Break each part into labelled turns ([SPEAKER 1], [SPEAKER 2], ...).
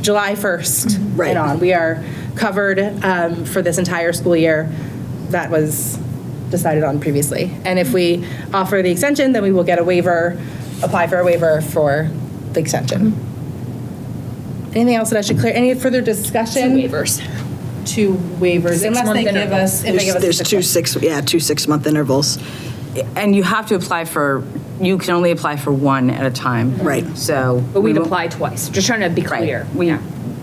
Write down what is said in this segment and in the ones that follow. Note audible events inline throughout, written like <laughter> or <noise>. [SPEAKER 1] July 1st
[SPEAKER 2] Right.
[SPEAKER 1] and on. We are covered um, for this entire school year. That was decided on previously. And if we offer the extension, then we will get a waiver, apply for a waiver for the extension.
[SPEAKER 2] Mm-hmm.
[SPEAKER 1] Anything else that I should clear? Any further discussion? waivers. Two waivers, unless they give us, if they give us. a
[SPEAKER 2] There's there's
[SPEAKER 1] six
[SPEAKER 2] two
[SPEAKER 1] month.
[SPEAKER 2] six, yeah, two six-month intervals.
[SPEAKER 3] And you have to apply for, you can only apply for one at a time.
[SPEAKER 2] Right.
[SPEAKER 3] So.
[SPEAKER 4] But we'd
[SPEAKER 3] we won't-
[SPEAKER 4] apply twice, just trying to be
[SPEAKER 3] Right.
[SPEAKER 4] clear.
[SPEAKER 3] We,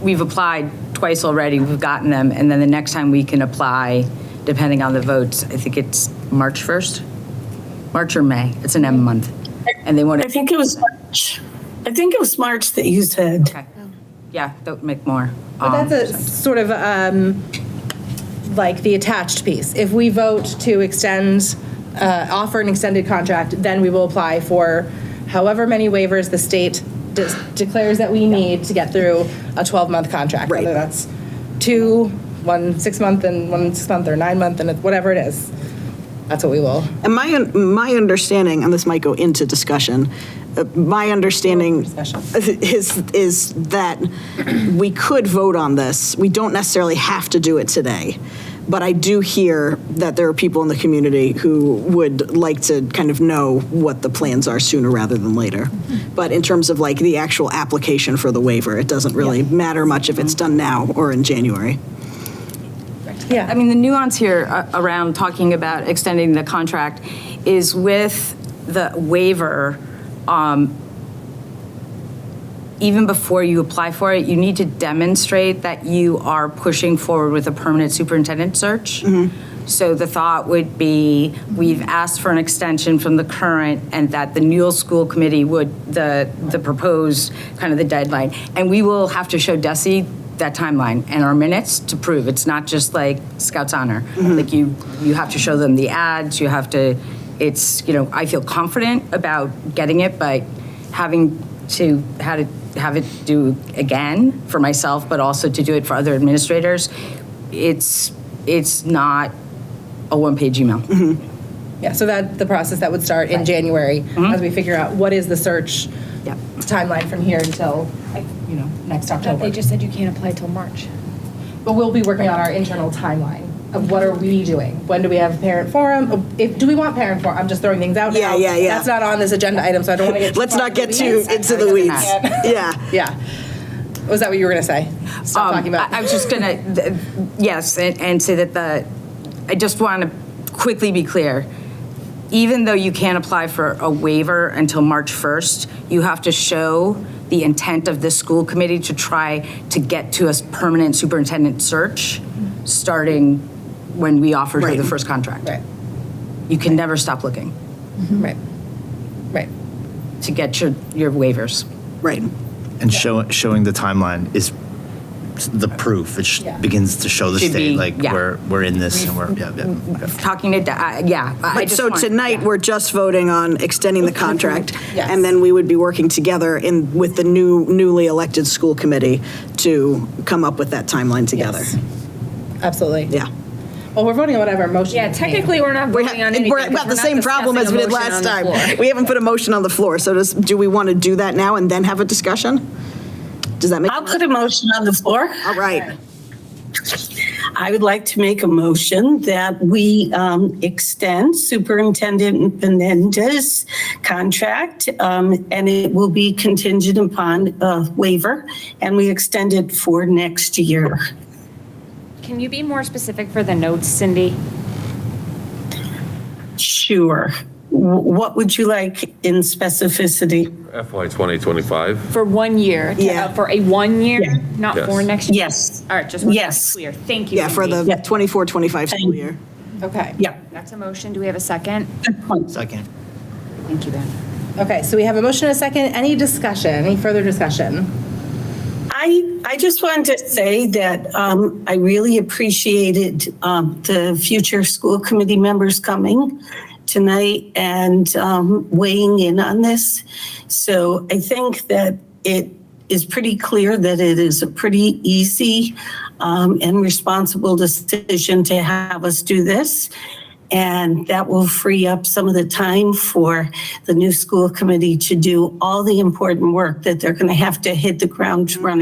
[SPEAKER 3] we've applied twice already, we've gotten them, and then the next time we can apply, depending on the votes, I think it's March 1st? March or May, it's an M month. And they want
[SPEAKER 5] I
[SPEAKER 3] to,
[SPEAKER 5] think it was March. I think it was March that you said.
[SPEAKER 3] okay. yeah, that would make more.
[SPEAKER 1] But that's a sort of um, like the attached piece. If we vote to extend, uh, offer an extended contract, then we will apply for however many waivers the state de- declares that we need to get through a 12-month contract.
[SPEAKER 2] Right.
[SPEAKER 1] Whether that's two, one six-month and one six-month or nine-month and it- whatever it is. That's what we will.
[SPEAKER 2] And my, my understanding, and this might go into discussion, uh, my understanding
[SPEAKER 1] Discussion.
[SPEAKER 2] is, is that we could vote on this. We don't necessarily have to do it today. But I do hear that there are people in the community who would like to kind of know what the plans are sooner rather than later. But in terms of like the actual application for the waiver, it doesn't really matter much if it's done now or in January.
[SPEAKER 1] Yeah.
[SPEAKER 3] I mean, the nuance here uh, around talking about extending the contract is with the waiver, um, even before you apply for it, you need to demonstrate that you are pushing forward with a permanent superintendent search. So the thought would be, we've asked for an extension from the current and that the Newell School Committee would, the, the proposed, kind of the deadline. And we will have to show Desi that timeline and our minutes to prove. It's not just like Scouts Honor. Like you, you have to show them the ads, you have to, it's, you know, I feel confident about getting it, but having to how to have it do again for myself, but also to do it for other administrators. It's it's not a one-page email.
[SPEAKER 1] Yeah, so that, the process that would start in January, as we figure out what is the search
[SPEAKER 3] Yep.
[SPEAKER 1] timeline from here until, you know, next October.
[SPEAKER 4] They just said you can't apply till March.
[SPEAKER 1] But we'll be working on our internal timeline of what are we doing? When do we have parent forum? If, do we want parent forum? I'm just throwing things out
[SPEAKER 2] Yeah,
[SPEAKER 1] now.
[SPEAKER 2] yeah, yeah.
[SPEAKER 1] That's not on this agenda item, so I don't want to get.
[SPEAKER 2] Let's
[SPEAKER 1] far
[SPEAKER 2] not get
[SPEAKER 1] into
[SPEAKER 2] too
[SPEAKER 1] weeds.
[SPEAKER 2] into the weeds. Yeah.
[SPEAKER 1] Yeah. Was that what you were going to say? Stop
[SPEAKER 3] Um,
[SPEAKER 1] talking about.
[SPEAKER 3] I, I was just gonna th- yes, and, and say that the I just want to quickly be clear. Even though you can't apply for a waiver until March 1st, you have to show the intent of the school committee to try to get to a s- permanent superintendent search starting when we offered her the
[SPEAKER 2] Right.
[SPEAKER 3] first contract.
[SPEAKER 1] Right,
[SPEAKER 3] You can never stop looking
[SPEAKER 1] right, right.
[SPEAKER 3] to get your, your waivers.
[SPEAKER 2] Right.
[SPEAKER 6] And show, showing the timeline is the proof. It sh-
[SPEAKER 1] Yeah.
[SPEAKER 6] begins to show the
[SPEAKER 3] Should
[SPEAKER 6] state,
[SPEAKER 3] be-
[SPEAKER 6] like,
[SPEAKER 3] yeah. Mm-hmm.
[SPEAKER 6] we're, we're in this and we're, yeah, yeah. okay.
[SPEAKER 3] Talking to, Da- I- yeah. I- I
[SPEAKER 2] But
[SPEAKER 3] just
[SPEAKER 2] so
[SPEAKER 3] want-
[SPEAKER 2] tonight,
[SPEAKER 3] yeah.
[SPEAKER 2] we're just voting on extending the
[SPEAKER 4] <laughs>
[SPEAKER 2] contract,
[SPEAKER 1] Yes.
[SPEAKER 2] and then we would be working together in, with the new, newly elected school committee to come up with that timeline together.
[SPEAKER 1] Yes. Absolutely.
[SPEAKER 2] Yeah.
[SPEAKER 1] Well, we're voting on whatever motion.
[SPEAKER 4] Yeah, technically, we're not
[SPEAKER 2] We're
[SPEAKER 4] voting on
[SPEAKER 2] ha-
[SPEAKER 4] anything.
[SPEAKER 2] we're
[SPEAKER 4] because
[SPEAKER 2] about
[SPEAKER 4] we're
[SPEAKER 2] the
[SPEAKER 4] not
[SPEAKER 2] same problem as
[SPEAKER 4] discussing
[SPEAKER 2] we
[SPEAKER 4] a
[SPEAKER 2] did
[SPEAKER 4] motion on
[SPEAKER 2] last
[SPEAKER 4] the floor.
[SPEAKER 2] time. We haven't put a motion on the floor, so does, do we want to do that now and then have a discussion? Does that make?
[SPEAKER 4] Uh,
[SPEAKER 5] I'll put a motion on the floor.
[SPEAKER 2] All right.
[SPEAKER 5] I would like to make a motion that we um, extend Superintendent Menendez's contract, um, and it will be contingent upon a waiver, and we extend it for next year.
[SPEAKER 4] Can you be more specific for the notes, Cindy?
[SPEAKER 5] Sure. Wh- What would you like in specificity?
[SPEAKER 7] FY 2025,
[SPEAKER 4] For one year, to-
[SPEAKER 2] Yeah.
[SPEAKER 4] uh, for a one
[SPEAKER 5] Yeah.
[SPEAKER 4] year, not
[SPEAKER 7] Yes.
[SPEAKER 4] for next year?
[SPEAKER 5] Yes.
[SPEAKER 4] All right, just want to be
[SPEAKER 5] Yes.
[SPEAKER 4] clear. Thank you.
[SPEAKER 2] Yeah, for
[SPEAKER 4] Cindy.
[SPEAKER 2] the 24, 25 school year.
[SPEAKER 1] Okay.
[SPEAKER 5] Yeah.
[SPEAKER 4] That's a motion. Do we have a second?
[SPEAKER 5] Good point.
[SPEAKER 6] Second.
[SPEAKER 4] Thank you, Ben.
[SPEAKER 1] Okay, so we have a motion and a second. Any discussion? Any further discussion?
[SPEAKER 5] I, I just wanted to say that um, I really appreciated um, the future school committee members coming tonight and um, weighing in on this. So I think that it is pretty clear that it is a pretty easy um, and responsible decision to have us do this. And that will free up some of the time for the new school committee to do all the important work that they're going to have to hit the ground running.